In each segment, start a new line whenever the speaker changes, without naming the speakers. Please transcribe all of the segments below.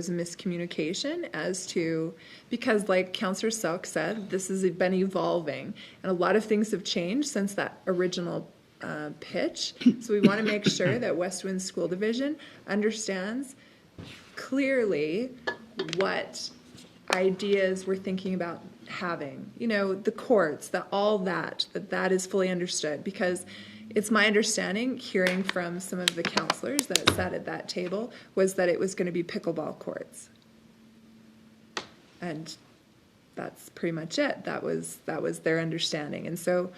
was a miscommunication as to because like counselor selk said this has been evolving and a lot of things have changed since that original uh, pitch so we want to make sure that west wind school division understands clearly what ideas we're thinking about having you know the courts that all that that that is fully understood because it's my understanding hearing from some of the counselors that sat at that table was that it was going to be pickleball courts and that's pretty much it that was that was their understanding and so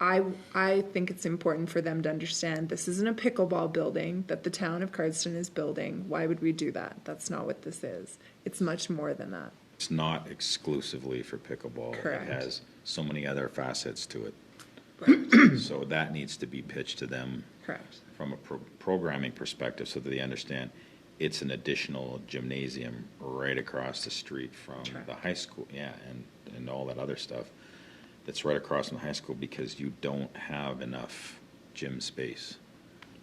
I, I think it's important for them to understand this isn't a pickleball building that the town of Cardston is building. Why would we do that? That's not what this is. It's much more than that.
It's not exclusively for pickleball.
Correct.
It has so many other facets to it. So that needs to be pitched to them
Correct.
from a pro- programming perspective so that they understand it's an additional gymnasium right across the street from
Correct.
the high school, yeah, and, and all that other stuff that's right across from the high school because you don't have enough gym space.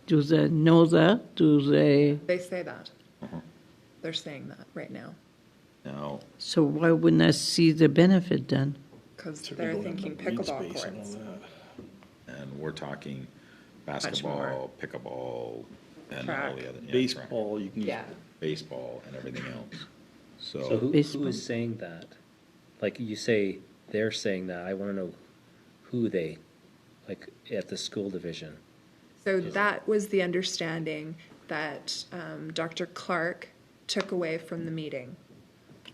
Do they know that? Do they?
They say that. They're saying that right now
Now,
So why wouldn't I see the benefit then?
because
So we
they're
don't have
thinking
enough green
pickleball
space and all
courts.
that.
and we're talking
more.
basketball, pickleball, and all
Track.
the other, yeah, track,
Baseball, you can.
Yeah.
baseball and everything else.
So who,
Baseball.
who is saying that? Like you say, they're saying that. I want to know who they, like at the school division.
So that was the understanding that um, Dr. Clark took away from the meeting.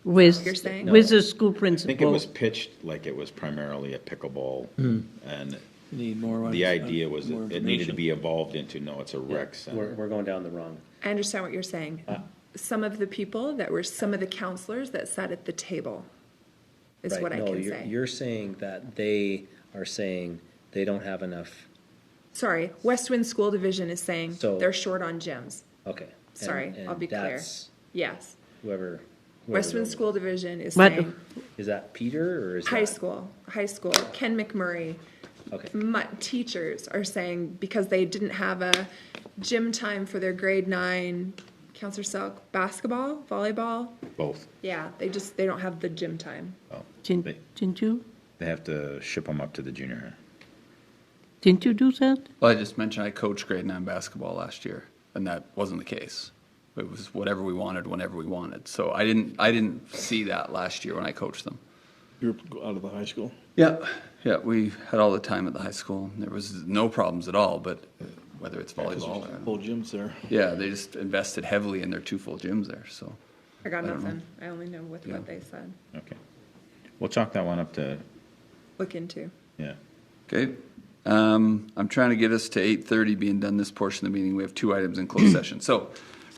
With,
You're saying?
with the school
I think it
principal?
was pitched like it was primarily a pickleball, and
Need more.
the idea was
more
it it needed to
information.
be evolved into, no, it's a rec
We're,
center.
we're going down the wrong.
I understand what you're saying.
Uh.
Some of the people that were, some of the counselors that sat at the table is
right.
what I
no,
can
you're,
say.
you're saying that they are saying they don't have enough.
Sorry, Westwind School Division is saying
So-
they're short on gyms.
Okay. And-
Sorry, I'll
and
be clear.
that's
Yes.
Whoever. whoever
Westwind
wrote it.
School Division is
But-
saying,
Is that Peter or is
high
that-
school, high school, Ken McMurray,
Okay.
mu- teachers are saying because they didn't have a gym time for their grade nine, Counselor Selk, basketball, volleyball.
Both.
Yeah, they just, they don't have the gym time.
Didn't didn't you,
They have to ship them up to the junior high.
didn't you do that?
Well, I just mentioned I coached grade nine basketball last year, and that wasn't the case. It was whatever we wanted, whenever we wanted. So I didn't, I didn't see that last year when I coached them.
You were out of the high school.
Yeah, yeah, we had all the time at the high school. There was no problems at all. But whether it's volleyball, or,
Full gyms there.
yeah, they just invested heavily in their two full gyms there. So
I got
I don't know.
nothing. I only know with what they said.
Okay. We'll chalk that one up to,
Look into.
yeah.
okay, um, I'm trying to get us to 8:30 being done this portion of the meeting. We have two items in closed session. So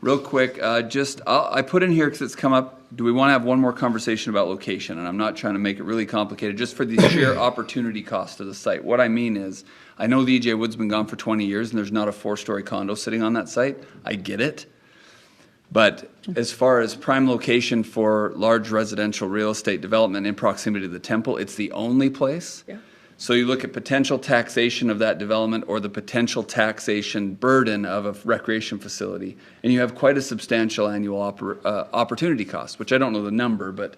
real quick, uh, just I'll, I put in here because it's come up. Do we want to have one more conversation about location? And I'm not trying to make it really complicated, just for the sheer opportunity cost of the site. What I mean is, I know the EJ Wood's been gone for 20 years, and there's not a four-story condo sitting on that site. I get it. But as far as prime location for large residential real estate development in proximity to the temple, it's the only place.
Yeah.
So you look at potential taxation of that development or the potential taxation burden of a recreation facility, and you have quite a substantial annual oppor- uh, opportunity cost, which I don't know the number, but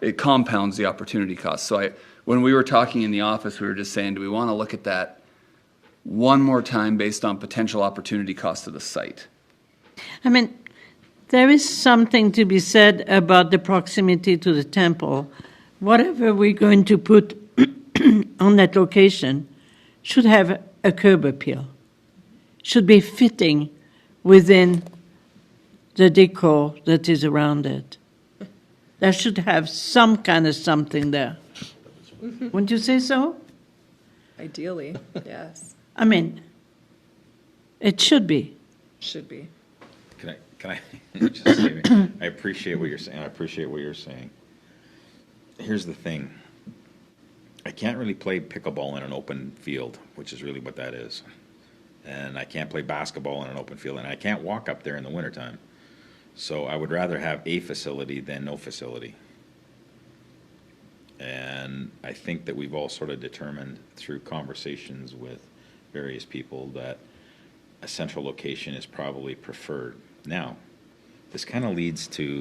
it compounds the opportunity cost. So I, when we were talking in the office, we were just saying, do we want to look at that one more time based on potential opportunity cost of the site?
I mean, there is something to be said about the proximity to the temple. Whatever we're going to put on that location should have a curb appeal, should be fitting within the decor that is around it. There should have some kind of something there. Wouldn't you say so?
Ideally, yes,
I mean, it should be.
should be.
Can I, can I, just say, I appreciate what you're saying, I appreciate what you're saying. Here's the thing. I can't really play pickleball in an open field, which is really what that is. And I can't play basketball in an open field, and I can't walk up there in the wintertime. So I would rather have a facility than no facility. And I think that we've all sort of determined through conversations with various people that a central location is probably preferred. Now, this kind of leads to